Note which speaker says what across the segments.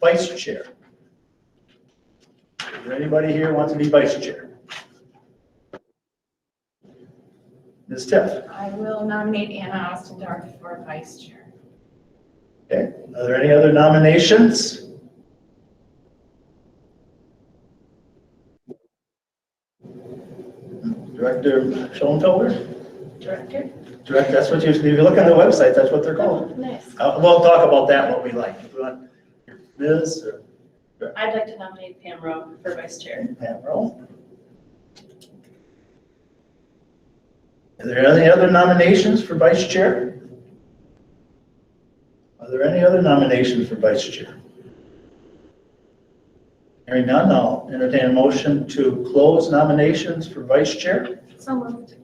Speaker 1: vice chair. Is there anybody here who wants to be vice chair? Ms. Tiff,
Speaker 2: I will nominate Anna Ostendorf for vice chair.
Speaker 1: okay, are there any other nominations? Director Schoenfelder,
Speaker 2: Director?
Speaker 1: direct, that's what you, if you look on the website, that's what they're
Speaker 2: Oh.
Speaker 1: called.
Speaker 2: Nice.
Speaker 1: Uh, We'll talk about that, what we like. If we want Ms. or
Speaker 2: I'd like to nominate Pam Rowe for vice chair.
Speaker 1: Pam Roll. Are there any other nominations for vice chair? Are there any other nominations for vice chair? Hearing none, I'll entertain a motion to close nominations for vice chair. Is
Speaker 2: So moved.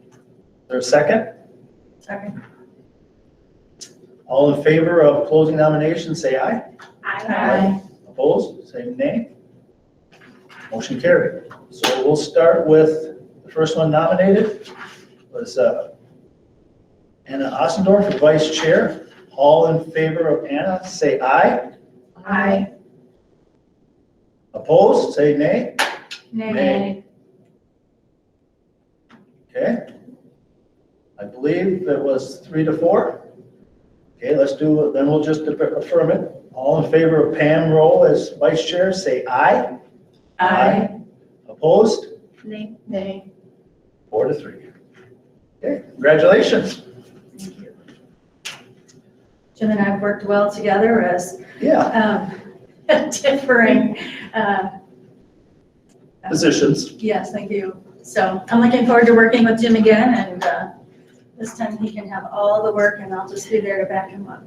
Speaker 1: there a second?
Speaker 2: Second.
Speaker 1: All in favor of closing nominations, say aye.
Speaker 2: Aye.
Speaker 1: Opposed, same nay. Motion carried. So we'll start with, the first one nominated was uh, Anna Ostendorf for vice chair. All in favor of Anna, say aye.
Speaker 2: Aye.
Speaker 1: Opposed, say nay. Nay. Okay. I believe it was three to four. Okay, let's do, then we'll just affirm it. All in favor of Pam Roll as vice chair, say aye. Aye. Opposed,
Speaker 2: Nay. Nay.
Speaker 1: Four to three. Okay, congratulations.
Speaker 3: Thank you. Jim and I have worked well together as
Speaker 1: Yeah,
Speaker 3: um, differing, uh,
Speaker 1: positions.
Speaker 3: yes, thank you. So I'm looking forward to working with Jim again, and uh, this time he can have all the work, and I'll just be there to back him up.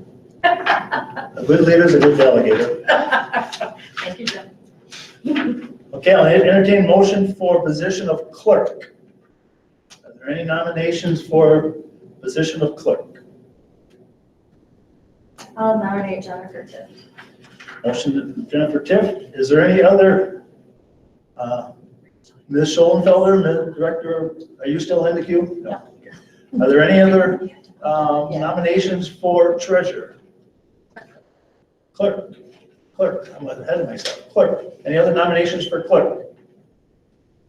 Speaker 1: A good leader is a good delegator.
Speaker 3: Thank you, Jim.
Speaker 1: Okay, I'll entertain motion for position of clerk. Are there any nominations for position of clerk?
Speaker 3: I'll nominate Jennifer Tiff.
Speaker 1: Motion to Jennifer Tiff. Is there any other? uh, Ms. Schoenfelder, Ms. Director, are you still in the queue? No. Are there any other um, nominations for treasurer? Clerk, clerk, I'm ahead of myself, clerk. Any other nominations for clerk?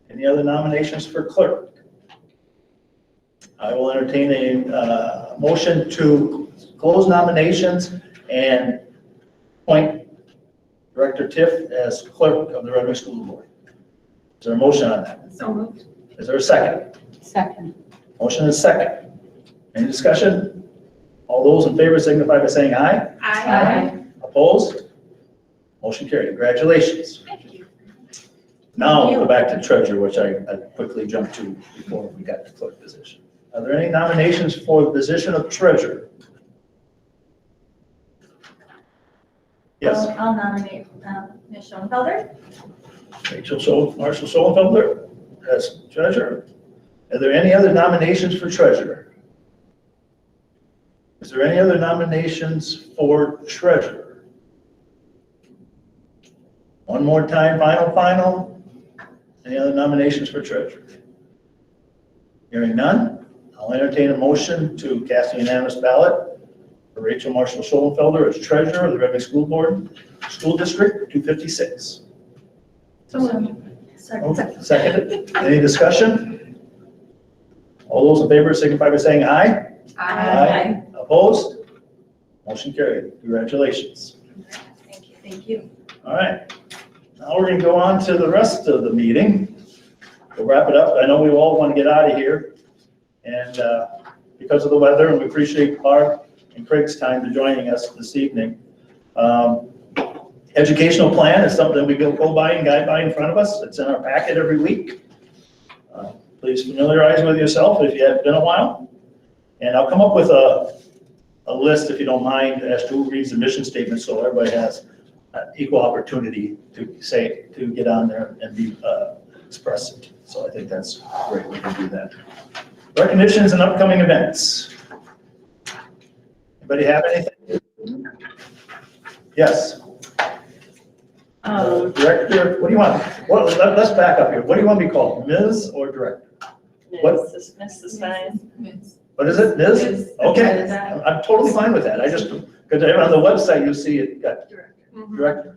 Speaker 1: Any other nominations for clerk? I will entertain a uh, motion to close nominations and appoint Director Tiff as clerk of the Red Wing School Board. Is there a motion on that?
Speaker 2: So moved.
Speaker 1: Is there a second?
Speaker 4: Second.
Speaker 1: Motion is second. Any discussion? All those in favor signify by saying aye. Opposed? Motion carried. Congratulations.
Speaker 2: Thank you.
Speaker 1: Now we'll go back to treasurer, which I I quickly jumped to before we got to clerk position. Are there any nominations for the position of treasurer? Yes,
Speaker 3: I'll I'll nominate um, Ms. Schoenfelder.
Speaker 1: Rachel Schul, Marshall Schoenfelder as treasurer. Are there any other nominations for treasurer? Is there any other nominations for treasurer? One more time, final, final. Any other nominations for treasurer? Hearing none, I'll entertain a motion to cast a unanimous ballot for Rachel Marshall Schoenfelder as treasurer of the Red Wing School Board, School District 256.
Speaker 2: So moved.
Speaker 3: Second.
Speaker 1: Oh. Seconded. Any discussion? All those in favor signify by saying aye. Opposed? Motion carried. Congratulations.
Speaker 3: Thank you. Thank you.
Speaker 1: All right. Now we're going to go on to the rest of the meeting. We'll wrap it up. I know we all want to get out of here. And uh, because of the weather, and we appreciate Clark and Craig's time to joining us this evening. Um, Educational plan is something we go go by and guide by in front of us. It's in our packet every week. Uh, Please familiarize with yourself if you have been a while. And I'll come up with a, a list, if you don't mind, as to who reads the mission statement, so everybody has uh, equal opportunity to say, to get on there and be uh, expressive. So I think that's a great way to do that. Recognitions and upcoming events. Anybody have anything? Yes. uh, Oh,
Speaker 4: Um,
Speaker 1: Director, what do you want? Well, let- let's back up here. What do you want to be called, Ms. or Director? What?
Speaker 4: Mrs. Mrs. Stein.
Speaker 1: What is it, Ms.?
Speaker 4: Ms.
Speaker 1: Okay,
Speaker 4: Ms.
Speaker 1: I'm I'm totally fine with that. I just, because on the website, you see it got Director